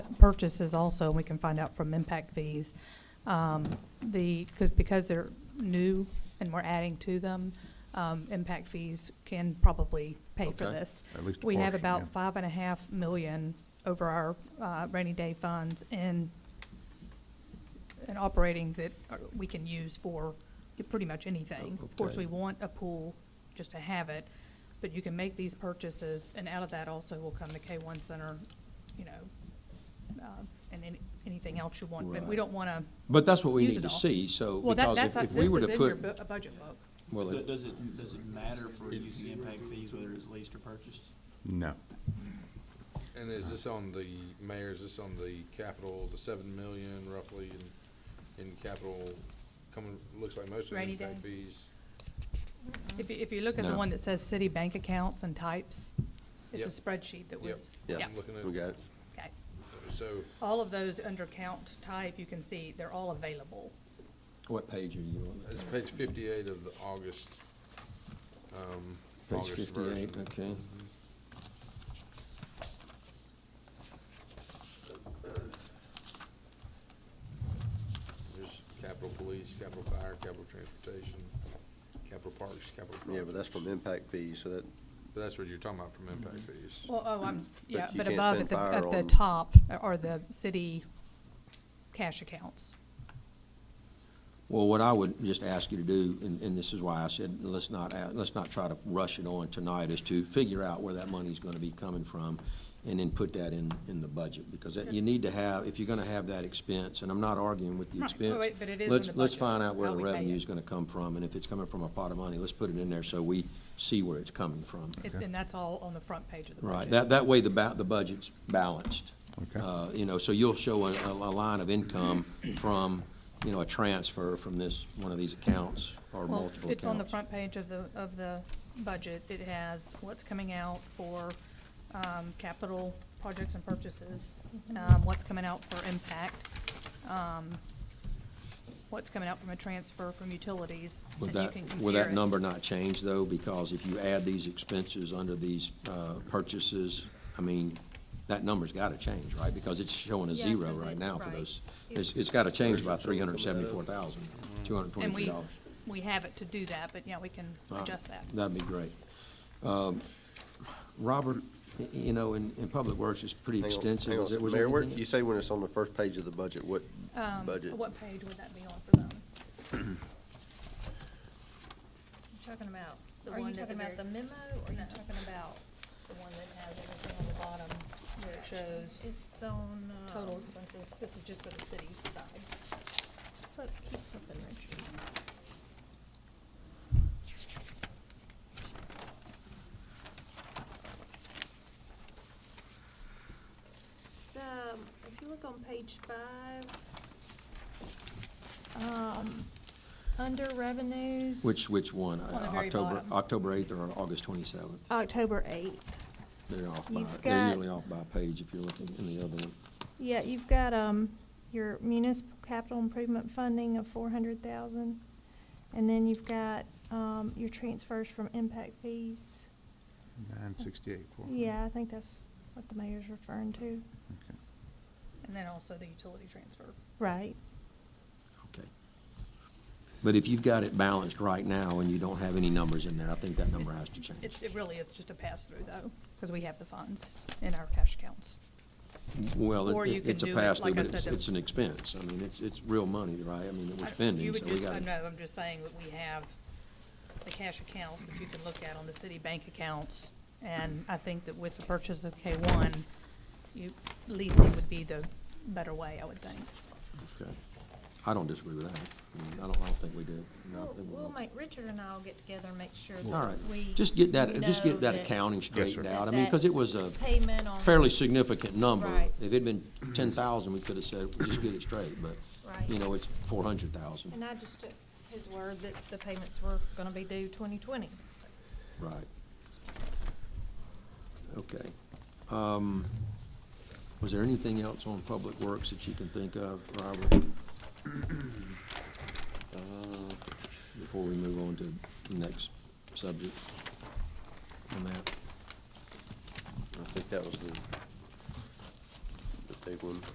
purchases also, and we can find out from impact fees. Um, The, because, because they're new and we're adding to them, um, impact fees can probably pay for Okay. this. At least a We have portion, about yeah. five and a half million over our uh, rainy day funds in, in operating that uh, we can use for pretty much anything. Of course, we Okay. want a pool just to have it, but you can make these purchases, and out of that also will come the K-1 Center, you know, uh, and any- anything else you want. But we Right. don't want to, But that's what we use need it to all. see, so, well, that, because that's, if, a- if we this were is to in your put, bu- a budget book. well, Do- it- Does it, does it matter for reducing impact fees whether it's leased or purchased? no, And is this on the, Mayor, is this on the capital, the seven million roughly in, in capital coming, looks like most of the Rainy impact day. fees? If you, if you look at the No. one that says city bank accounts and types, it's a Yep. spreadsheet that Yep, was, yeah, I'm looking we at, got it. okay. so, All of those under count type, you can see they're all available. What page are you on? it's page fifty-eight of the August, um, Page August version. fifty-eight, okay. There's capital police, capital fire, capital transportation, capital parks, capital projects. Yeah, but that's from impact fees, so that, But that's what you're talking about from impact fees. Well, oh, I'm, yeah, you but can't above at spend the, fire at the on- top are the city cash accounts. Well, what I would just ask you to do, and, and this is why I said, let's not, a- let's not try to rush it on tonight, is to figure out where that money's gonna be coming from, and then put that in, in the budget, because that- you need to have, if you're gonna have that expense, and I'm not arguing with the Right, expense. but- but it is in Let's, the let's budget, find out where how the we pay it. revenue's gonna come from, and if it's coming from a pot of money, let's put it in there so we see where it's coming from. It- And that's all on the front page of the budget. Right, that, that way the ba, the budget's balanced. Okay. Uh, you know, so you'll show a, a line of income from, you know, a transfer from this, one of these accounts or Well, multiple it- accounts. On the front page of the, of the budget, it has what's coming out for um, capital projects and purchases, um, what's coming out for impact, um, what's coming out from a transfer from utilities. Would and you that, can would compare that it. number not change though? Because if you add these expenses under these, uh, purchases, I mean, that number's gotta change, right? Because it's showing a Yeah, zero 'cause right it- now for right. those. It's, it's gotta change by three hundred and seventy-four thousand, two hundred and And twenty-three we, dollars. we have it to do that, but yeah, we can All right. adjust that. That'd be great. Um, Robert, y- you know, in, in Public Works, it's pretty hang on, extensive. hang on. Was there- was there Mayor, where, anything- you say when it's on the first page of the budget, what Um, budget? What page would that be on for them? You talking about, The are you one at the talking about very- the memo, or are you No. talking about The one that has everything on the bottom where it shows it's on, um. total expenses. This is just for the city side. Flip, keep flipping, Richard. It's, um, if you look on page five, um, under revenues. Which, which one? Uh, On the very October, bottom. October eighth or August twenty-seventh? October eighth. They're off by, You've they're got- usually off by a page if you're looking in the other one. Yeah, you've got, um, your municipal capital improvement funding of four hundred thousand. And then you've got, um, your transfers from impact fees. Nine sixty-eight, four hundred. Yeah, I think that's what the mayor's referring to. Okay. And then also the utility transfer. Right. Okay. But if you've got it balanced right now and you don't have any numbers in there, I think that number has to change. It, it really is just a pass-through though, because we have the funds in our cash accounts. Well, or it- you it- can it's a do it, pass like through, I but it's, said, it's an expense. I mean, it's, it's real money, right? I mean, that I- we're spending, You so would we just, I gotta. know, I'm just saying that we have the cash account that you can look at on the city bank accounts. And I think that with the purchase of K one, you, leasing would be the better way, I would think. Okay. I don't disagree with that. I mean, I don't, I don't think we do. No, I We'll, think we we'll don't. make, Richard and I will get together and make sure All right, that we. just get that, just know get that accounting straightened out. I mean, because it was a Payment on. fairly significant number. Right. If it'd been ten thousand, we could have said, just get it straight, but, you Right. know, it's four hundred thousand, And I just took his word that the payments were gonna be due twenty twenty. right? Okay. Um, Was there anything else on Public Works that you can think of, Robert, Uh, before we move on to the next subject on that? I think that was the, the big one.